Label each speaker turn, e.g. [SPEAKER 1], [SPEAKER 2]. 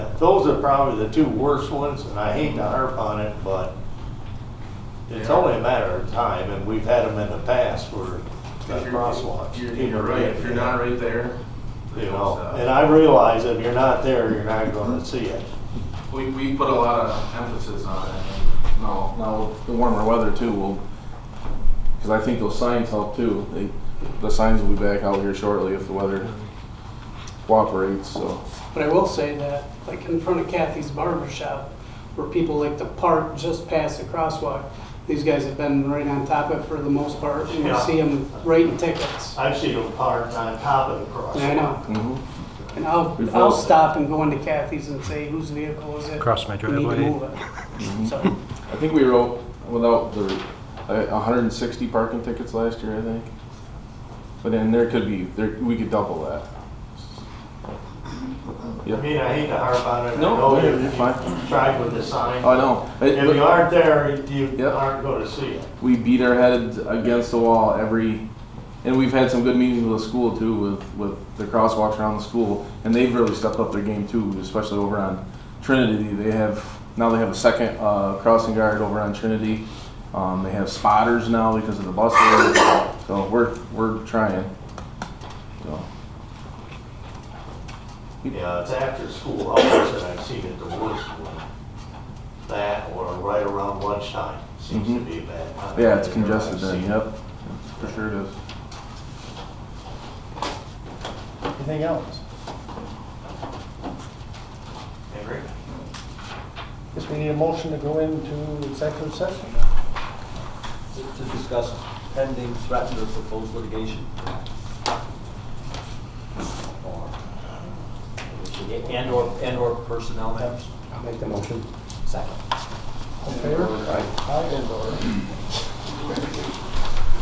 [SPEAKER 1] those are probably the two worst ones, and I hate to harp on it, but it's
[SPEAKER 2] Yeah.
[SPEAKER 1] only a matter of time, and we've had them in the past where
[SPEAKER 2] If
[SPEAKER 1] the
[SPEAKER 2] you're-
[SPEAKER 1] crosswalks.
[SPEAKER 2] You're, you're right, if you're not right there.
[SPEAKER 1] You
[SPEAKER 2] it's,
[SPEAKER 1] know,
[SPEAKER 2] uh,
[SPEAKER 1] and I realize if you're not there, you're not gonna see it.
[SPEAKER 2] We, we put a lot of emphasis on it. and No,
[SPEAKER 3] Now, the warmer weather too will, because I think those signs help too. They, the signs will be back out here shortly if the weather cooperates, so.
[SPEAKER 4] But I will say that, like in front of Kathy's barber shop, where people like to park just past the crosswalk, these guys have been right on top of it for the most part, and you
[SPEAKER 1] Yeah.
[SPEAKER 4] see them writing tickets.
[SPEAKER 1] I've seen them parked on top of the
[SPEAKER 4] And I
[SPEAKER 1] crosswalk.
[SPEAKER 4] know,
[SPEAKER 3] mhm.
[SPEAKER 4] and I'll,
[SPEAKER 3] We've
[SPEAKER 4] I'll
[SPEAKER 3] all-
[SPEAKER 4] stop and go into Kathy's and say, whose vehicle is it?
[SPEAKER 5] Across my
[SPEAKER 4] You need to
[SPEAKER 5] driveway.
[SPEAKER 4] move
[SPEAKER 3] Mm-hmm.
[SPEAKER 4] it. So,
[SPEAKER 3] I think we wrote without the, uh, a hundred and sixty parking tickets last year, I think. But then there could be, there, we could double that.
[SPEAKER 1] I
[SPEAKER 3] Yep.
[SPEAKER 1] mean, I hate to harp on it. I
[SPEAKER 3] No,
[SPEAKER 1] know
[SPEAKER 3] you're-
[SPEAKER 1] you-
[SPEAKER 3] you're
[SPEAKER 1] you
[SPEAKER 3] fine.
[SPEAKER 1] Tried with the sign.
[SPEAKER 3] Oh, I know. It-
[SPEAKER 1] If you aren't there, you
[SPEAKER 3] Yep.
[SPEAKER 1] aren't gonna see it.
[SPEAKER 3] we beat our heads against the wall every and we've had some good meetings with the school too with with the crosswalks around the school and they've really stepped up their game too especially over on trinity they have now they have a second uh, crossing guard over on trinity um, they have spotters now because of the bus load. so we're we're trying so
[SPEAKER 1] Yeah, it's after school hours and I've seen it the worst one. That or right around lunchtime seems to
[SPEAKER 3] Mhm.
[SPEAKER 1] be a bad time.
[SPEAKER 3] yeah it's
[SPEAKER 1] I've never
[SPEAKER 3] congested
[SPEAKER 1] seen
[SPEAKER 3] then
[SPEAKER 1] it.
[SPEAKER 3] yep for sure it is
[SPEAKER 6] Anything else?
[SPEAKER 1] Henry?
[SPEAKER 6] Guess we need a motion to go into executive session.
[SPEAKER 7] to discuss pending threatened or proposed litigation. Or- And or, and or personnel matters.
[SPEAKER 6] I'll make the motion.
[SPEAKER 7] Second.
[SPEAKER 6] All in favor? Aye. and or.